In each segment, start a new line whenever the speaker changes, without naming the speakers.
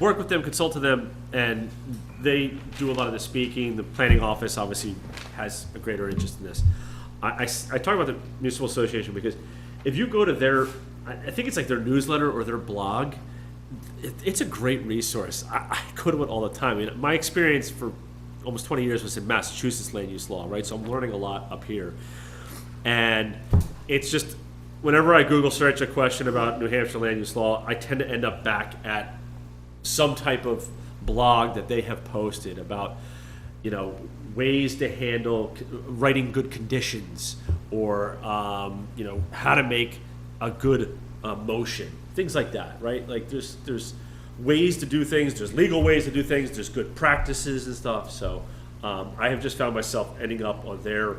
work with them, consult to them, and they do a lot of the speaking. The planning office obviously has a greater interest in this. I, I s- I talk about the municipal association because if you go to their, I I think it's like their newsletter or their blog, it, it's a great resource. I, I go to it all the time. I mean, my experience for almost 20 years was in Massachusetts land use law, right? So I'm learning a lot up here. And it's just whenever I Google search a question about New Hampshire land use law, I tend to end up back at some type of blog that they have posted about, you know, ways to handle c- writing good conditions or, um, you know, how to make a good uh, motion, things like that, right? Like there's, there's ways to do things, there's legal ways to do things, there's good practices and stuff. So um, I have just found myself ending up on their,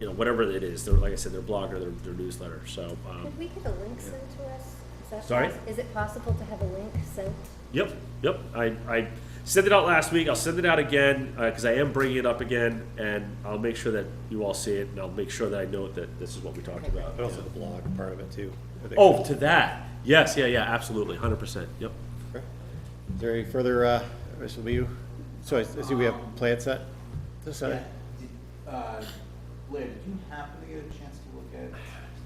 you know, whatever it is, their, like I said, their blog or their, their newsletter. So, um,
Could we get a link sent to us? Is that
Sorry?
poss- Is it possible to have a link sent?
Yep, yep. I, I sent it out last week. I'll send it out again because I am bringing it up again, and I'll make sure that you all see it, and I'll make sure that I note that this is what we talked about.
But also the blog part of it too. I think.
Oh, to that. Yes, yeah, yeah, absolutely, hundred percent. Yep.
Is there any further, uh, this will be you? So I I see we have plans set this Saturday?
Did, uh, Blair, did you happen to get a chance to look at,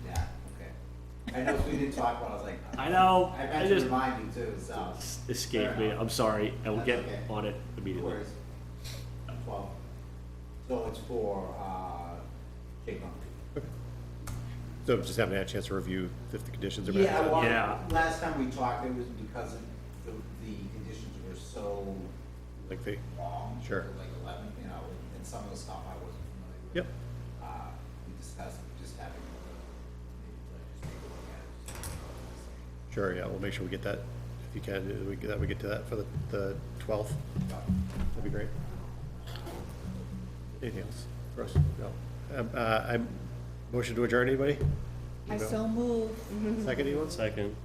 yeah, okay. I know we didn't talk about, it, I was like.
I know,
I
I
meant to
just-
remind you too, so.
Escape me. I'm sorry. I will get on it
No
immediately.
worries. Twelve. So it's for, uh, Jake Lumber.
So just haven't had a chance to review if the conditions are met.
Yeah, well,
Yeah.
last time we talked, it was because of the, the conditions were so
Like the,
wrong.
Sure.
Like eleven, you know, and- and some of the stuff I wasn't familiar with.
Yep.
Uh, we discussed just having, uh, maybe like just take a look at it. just see what it's saying.
sure, yeah, we'll make sure we get that, if you can, uh, we get that, we get to that for the, the twelfth. That'd be great. Anything else for us? No. Um, uh, I'm, motion to adjourn, anybody?
I so move.
Second, anyone?
Second.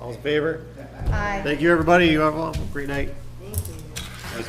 All's in favor?
Aye.
Thank you, everybody. You have a great night.